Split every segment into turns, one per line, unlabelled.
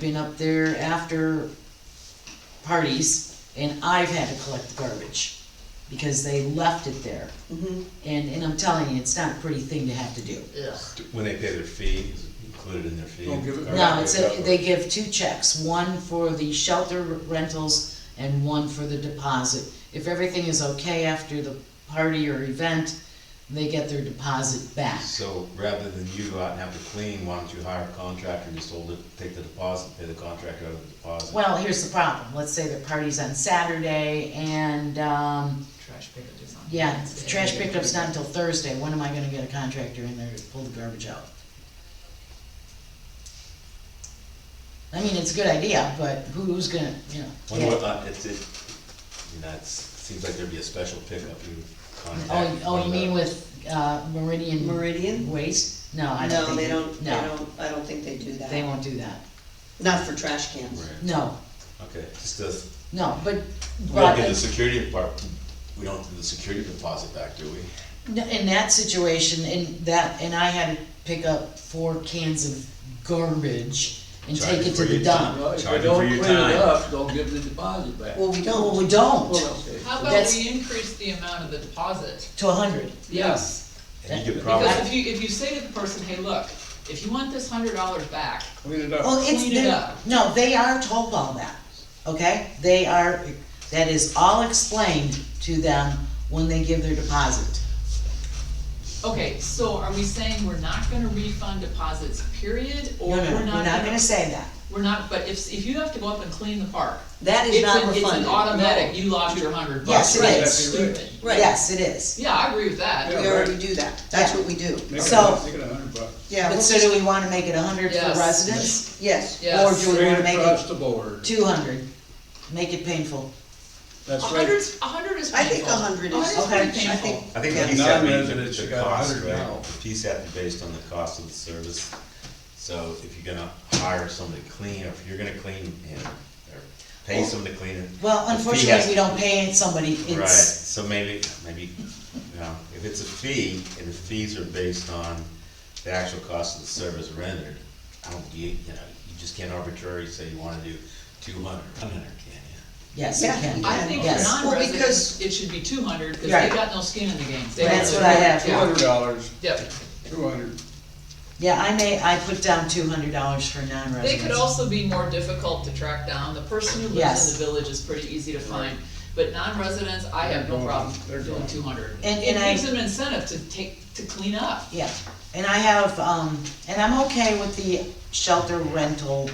been up there after parties, and I've had to collect the garbage, because they left it there.
Mhm.
And, and I'm telling you, it's not a pretty thing to have to do.
Ugh.
When they pay their fee, is it included in their fee?
Don't give it back.
No, it's a, they give two checks, one for the shelter rentals and one for the deposit. If everything is okay after the party or event, they get their deposit back.
So rather than you go out and have to clean, why don't you hire a contractor and just hold it, take the deposit, pay the contractor out of the deposit?
Well, here's the problem, let's say the party's on Saturday and, um,
Trash pickup is on.
yeah,
Wednesday.
trash pickup's not until Thursday, when am I gonna get a contractor in there to pull the garbage out? I mean, it's a good idea, but who's gonna, you know?
When, what, uh, it's, it, I mean, that's, seems like there'd be a special pickup you
Oh,
contact.
oh,
one
you
of the-
mean with, uh, Meridian?
Meridian?
Waste? No, I don't
No,
think.
they don't, they
No,
don't, I don't think they do that.
they won't do that.
Not for trash cans.
Right,
No,
okay, just does,
no, but,
we don't
but,
give the security department, we don't give the security deposit back, do we?
no, in that situation, in that, and I had to pick up four cans of garbage and
Charge
take
it
it to
for
the
your
dump.
Well, if
Charge
they
it
don't
for
clean
your
it
time.
up, don't give the deposit back.
Well, we don't. Well, we don't,
Well, okay.
How about
That's-
we increase the amount of the deposit?
to a hundred.
Yes.
And you could probably,
Because if you, if you say to the person, hey, look, if you want this hundred dollars back,
Clean it up.
Well, it's,
Clean it
they're-
up.
no, they are told all that, okay? They are, that is all explained to them when they give their deposit.
okay, so are we saying we're not gonna refund deposits, period?
No,
Or
no, no,
we're not
gonna
gonna,
say that.
we're not, but if, if you have to go up and clean the park,
That is
it's
not
an,
refunded.
it's an automatic, you lost your hundred
Yes,
bucks.
it
That's
is.
Stupid.
Right.
Yes, it is.
Yeah, I agree with that.
Yeah.
We already do that, that's
Yeah.
what we do.
Make it
so-
a- Make it a hundred bucks.
Yeah,
But
we'll
so do
just-
we wanna make it a hundred
Yes.
for residents?
yes,
Yes.
Or do we
Straight
wanna make
across
it
the board.
two hundred? Make it painful.
A
That's right.
hundred's, a hundred is
I think
painful.
a hundred
A
is,
hundred's
okay,
pretty
I
painful.
think,
I think
Yeah.
the PSAT means
Non-residents,
the-
you
the
got
cost,
100 now.
right? The PSAT is based on the cost of the service, so if you're gonna hire somebody to clean, or if you're gonna clean him, or pay somebody to clean it.
Well,
the fee has-
unfortunately, we don't pay somebody,
Right,
it's,
so maybe, maybe, you know, if it's a fee, and the fees are based on the actual cost of the service rendered, I don't, you, you know, you just can't arbitrarily say you wanna do two hundred, one hundred, can you?
yes, we
Yeah.
can.
I think for
Yes.
Well, because-
non-residents, it should be two hundred, cause they
Right.
got no skin in the game. They
That's
don't-
what I have.
Two
Yeah.
hundred dollars,
Yep.
two hundred.
Yeah, I may, I put down two hundred dollars for non-residents.
They could also be more difficult to track down, the person who lives
Yes.
in the village is pretty easy to find, but non-residents, I have no
They're
problem
gone. They're
doing
gone.
two hundred.
And-
It
and I-
gives them incentive to take, to clean up.
Yeah, and I have, um, and I'm okay with the shelter rental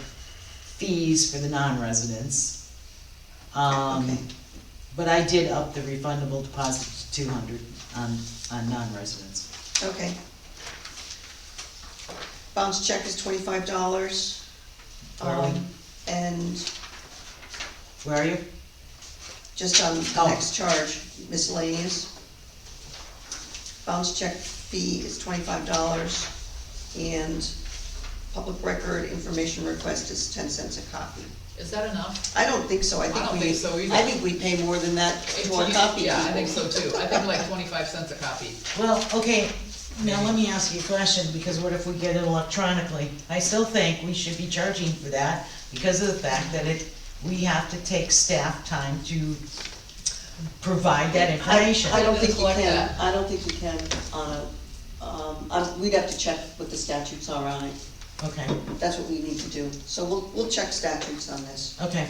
fees for the non-residents.
Okay.
Um, but I did up the refundable deposit to two hundred on, on non-residents.
okay. Bounce check is twenty-five dollars.
Are we-
Um, and
Where are you?
just on the
Oh.
next charge, miscellaneous. Bounce check fee is twenty-five dollars, and public record information request is ten cents a copy.
Is that enough?
I don't think so, I think we.
don't think so either.
I think we pay more than that to our
If you-
copy
Yeah, I
people.
think so too, I think like twenty-five cents a copy.
Well, okay, now let me ask you a question, because what if we get it electronically? I still think we should be charging for that because of the fact that it, we have to take staff time to provide that information.
I I don't think you
Collect
can,
that.
I don't think you can on a, um, I'm- we'd have to check what the statutes are on it,
Okay,
that's what we need to do, so we'll, we'll check statutes on this.
okay.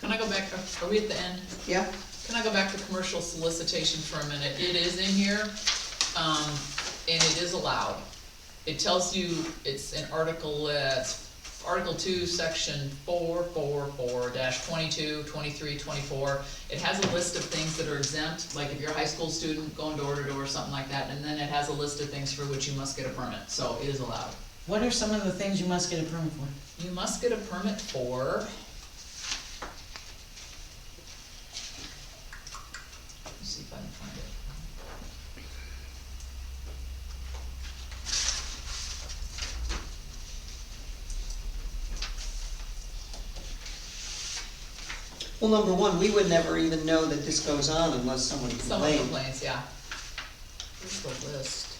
Can I go back, are we at the end?
Yeah,
Can I go back to commercial solicitation for a minute? It is in here, um, and it is allowed. It tells you, it's an article, uh, it's Article two, section four, four, four, dash twenty-two, twenty-three, twenty-four. It has a list of things that are exempt, like if you're a high school student going door to door or something like that, and then it has a list of things for which you must get a permit, so it is allowed.
What are some of the things you must get a permit for?
You must get a permit for. Let's see if I can find it.
well, number one, we would never even know that this goes on unless someone
Someone
complained.
complains, yeah. Where's the list?